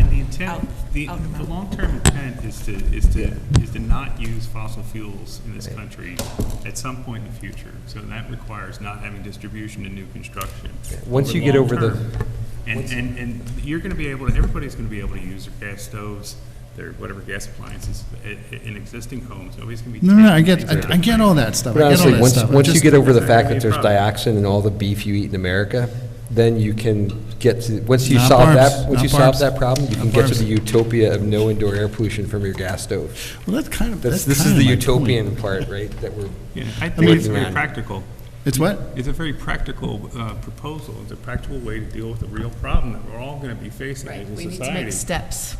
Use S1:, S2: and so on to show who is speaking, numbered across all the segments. S1: intent,
S2: out-
S1: the,
S2: out and
S1: the
S2: about.
S1: long-term intent is to, is to, is to not use fossil fuels in this country at some point in the future. So that requires not having distribution in new construction.
S3: Once you get over the-
S1: long-term. And, and, and you're gonna be able, to everybody's gonna be able to use their gas stoves, their whatever gas appliances i- i- in existing homes, nobody's gonna be.
S4: No, no, no, I
S1: taking
S4: get,
S1: things out
S4: I I
S1: of
S4: get all that stuff.
S3: But
S4: I get all
S3: honestly,
S4: that
S3: once,
S4: stuff. I
S3: once you
S4: just-
S3: get over the
S1: That's not
S3: fact
S1: gonna
S3: that
S1: be a
S3: there's
S1: problem.
S3: dioxin in all the beef you eat in America, then you can get to, once you
S4: Not
S3: solve
S4: barbs,
S3: that, once
S4: not
S3: you solve
S4: barbs,
S3: that problem, you
S4: not
S3: can get to
S4: barbs.
S3: the utopia of no indoor air pollution from your gas stove.
S4: Well, that's kind of,
S3: That's,
S4: that's
S3: this
S4: kind
S3: is the
S4: of my point.
S3: utopian part, right, that we're,
S1: Yeah, I think it's
S3: looking at
S1: very
S3: it.
S1: practical.
S4: It's what?
S1: It's a very practical uh, proposal. It's a practical way to deal with a real problem that we're all going to be facing
S2: Right,
S1: as a
S2: we need to make
S1: society.
S2: steps.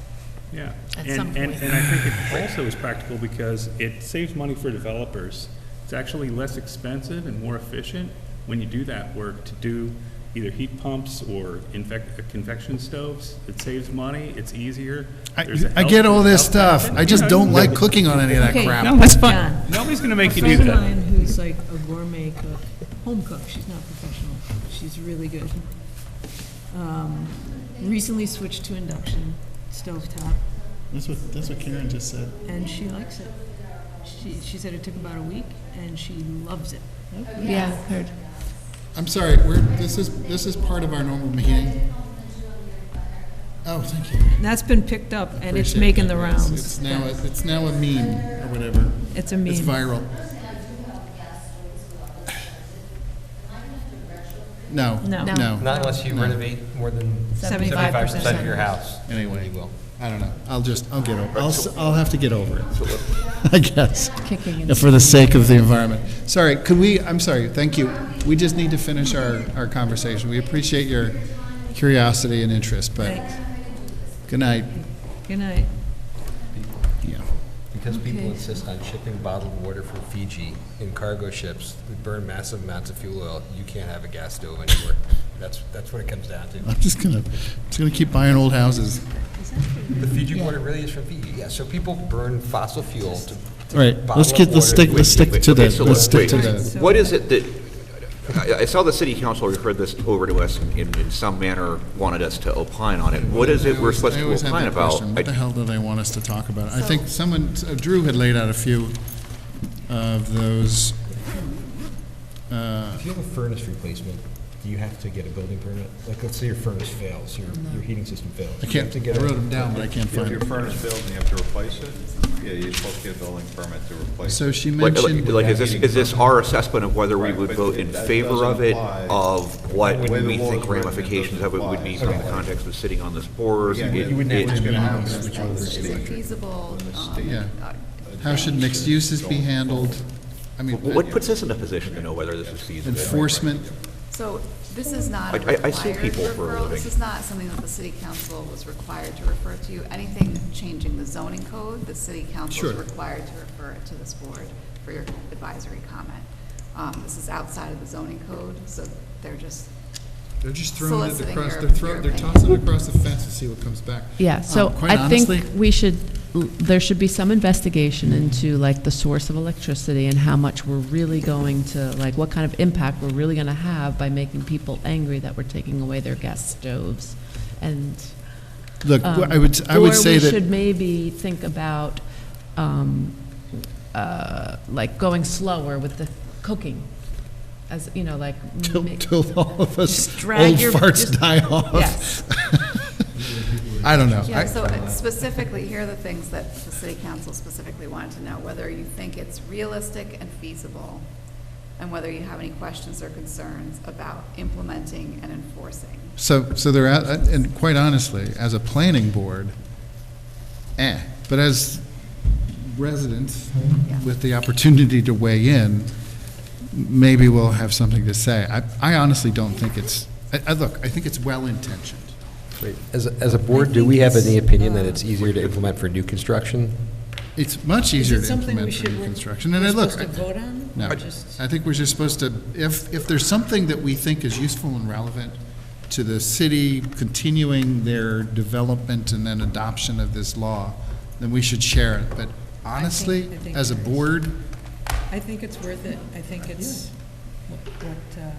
S1: Yeah.
S2: at
S1: And-
S2: some
S1: And,
S2: point.
S1: and I think it also is practical because it saves money for developers. It's actually less expensive and more efficient when you do that work to do either heat pumps or infec- convection stoves. It saves money, it's easier. There's
S4: I,
S1: a
S4: I get
S1: health-
S4: all this
S1: health
S4: stuff.
S1: benefit.
S4: I just
S1: Yeah,
S4: don't
S1: you-
S4: like cooking on any of that
S5: Okay.
S4: crap.
S1: No, that's fine.
S5: John.
S1: Nobody's going to make
S5: A
S1: you do
S5: friend of
S1: that.
S5: mine who's like a gourmet cook, home cook, she's not professional, she's really good. Um, Recently switched to induction stovetop,
S4: That's what, that's what Karen just said.
S5: and she likes it. She, she said it took about a week, and she loves it.
S2: Yeah, heard.
S4: I'm sorry, we're, this is, this is part of our normal meeting. Oh, thank you.
S5: And that's been picked up, and it's
S4: Appreciate
S5: making
S4: that.
S5: the
S4: It's-
S5: rounds.
S4: It's now, a- it's now a meme or whatever.
S5: It's a
S4: It's
S5: meme.
S4: viral. No.
S5: No. No.
S4: No.
S6: Not unless you renovate more than
S5: 75%
S6: seventy-five percent of your house.
S4: Anyway, well, I don't know. I'll just, I'll get over, I'll, s- I'll have to get over it, I guess.
S2: Kicking
S4: Yeah, For the sake of the environment. Sorry, could we, I'm sorry, thank you. We just need to finish our, our conversation. We appreciate your curiosity and interest, but
S5: Thanks.
S4: good night.
S5: Good night.
S4: Yeah.
S3: because people
S5: Okay.
S3: insist on shipping bottled water from Fiji in cargo ships that burn massive amounts of fuel oil, you can't have a gas stove anymore. That's, that's what it comes down to.
S4: I'm just gonna, just gonna keep buying old houses.
S3: The Fiji water really is from Fiji, yeah, so people burn fossil fuel to. to
S4: All right, let's
S3: bottle up
S4: get, let's
S3: water
S4: stick,
S3: to
S4: let's stick
S7: Wait,
S4: to
S7: okay,
S4: the,
S7: so
S4: let's stick
S7: wait.
S4: to the.
S5: So-
S7: What is it that, I I saw the city council referred this over to us in, in some manner, wanted us to opine on it. What is it
S4: I
S7: we're
S4: always-
S7: supposed
S4: I
S7: to
S4: always have
S7: opine
S4: that
S7: about?
S4: question. What the
S7: I-
S4: hell do they want us to talk about? I think someone, uh, Drew had laid out a few of those. uh,
S3: If you have a furnace replacement, do you have to get a building permit? Like, let's say your furnace fails, your, your heating system fails.
S4: I
S3: You
S4: can't,
S3: have to
S4: I
S3: get a-
S4: wrote them down, but I can't
S8: If
S4: find
S8: your
S4: them.
S8: furnace fails and you have to replace it, yeah, you're supposed to get a building permit to replace it.
S4: So she
S7: Like,
S4: mentioned,
S7: like, is this, is this our assessment of whether we would
S8: Right, but
S7: vote in
S8: that
S7: favor of it,
S8: doesn't apply.
S7: of
S8: The
S7: what
S8: way the
S7: we
S8: law is
S7: think
S8: written, it
S7: ramifications of it would be
S8: doesn't
S7: from the
S8: apply.
S7: context of sitting on this board?
S8: Yeah,
S7: It-
S8: you wouldn't
S7: it-
S8: have to-
S2: Is it feasible? um,
S4: yeah.
S2: uh,
S4: How should mixed uses be handled? I mean,
S7: What puts us in a position to know whether this is feasible?
S4: enforcement,
S2: So this is not a
S7: I- I- I see
S2: required
S7: people for a
S2: referral. This
S7: living.
S2: is not something that the city council was required to refer to. Anything changing the zoning code, the city council is
S4: Sure.
S2: required to refer it to this board for your advisory comment. Um, This is outside of the zoning code, so they're just
S4: they're just throwing it
S2: Soliciting
S4: across,
S2: your-
S4: they're throwing,
S2: your
S4: they're
S2: opinion.
S4: tossing it across the fence to see what comes back.
S9: Yeah, so
S4: Um, quite
S9: I think
S4: honestly,
S9: we should, there should be some investigation into like the source of electricity and how much we're really going to, like what kind of impact we're really going to have by making people angry that we're taking away their gas stoves and.
S4: Look,
S9: um,
S4: I would, I would say
S9: Or we should
S4: that,
S9: maybe think about, um, uh, like going slower with the cooking, as, you know, like.
S4: till,
S9: make-
S4: till all of us
S9: Just drag
S4: old
S9: your-
S4: farts
S9: just-
S4: die off.
S9: Yes.
S4: I don't know.
S2: Yeah,
S4: I-
S2: so uh, specifically, here are the things that the city council specifically wanted to know, whether you think it's realistic and feasible, and whether you have any questions or concerns about implementing and enforcing.
S4: So, so they're, out- and quite honestly, as a planning board, eh, but as residents with the opportunity to weigh in, maybe we'll have something to say. I, I honestly don't think it's, I, I, look, I think it's well-intentioned.
S3: Wait, As, a- as a board, do we have any opinion that it's easier to implement for new construction?
S4: It's much easier to implement for new construction, and I look.
S5: vote on?
S4: No, I think we're just supposed to, if, if there's something that we think is useful and relevant to the city continuing their development and then adoption of this law, then we should share it. But honestly,
S5: I think
S4: as a
S5: there is.
S4: board,
S5: I think it's worth it. I think it's what, what, uh,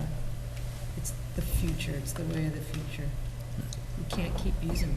S5: it's the future, it's the way of the future. You can't keep using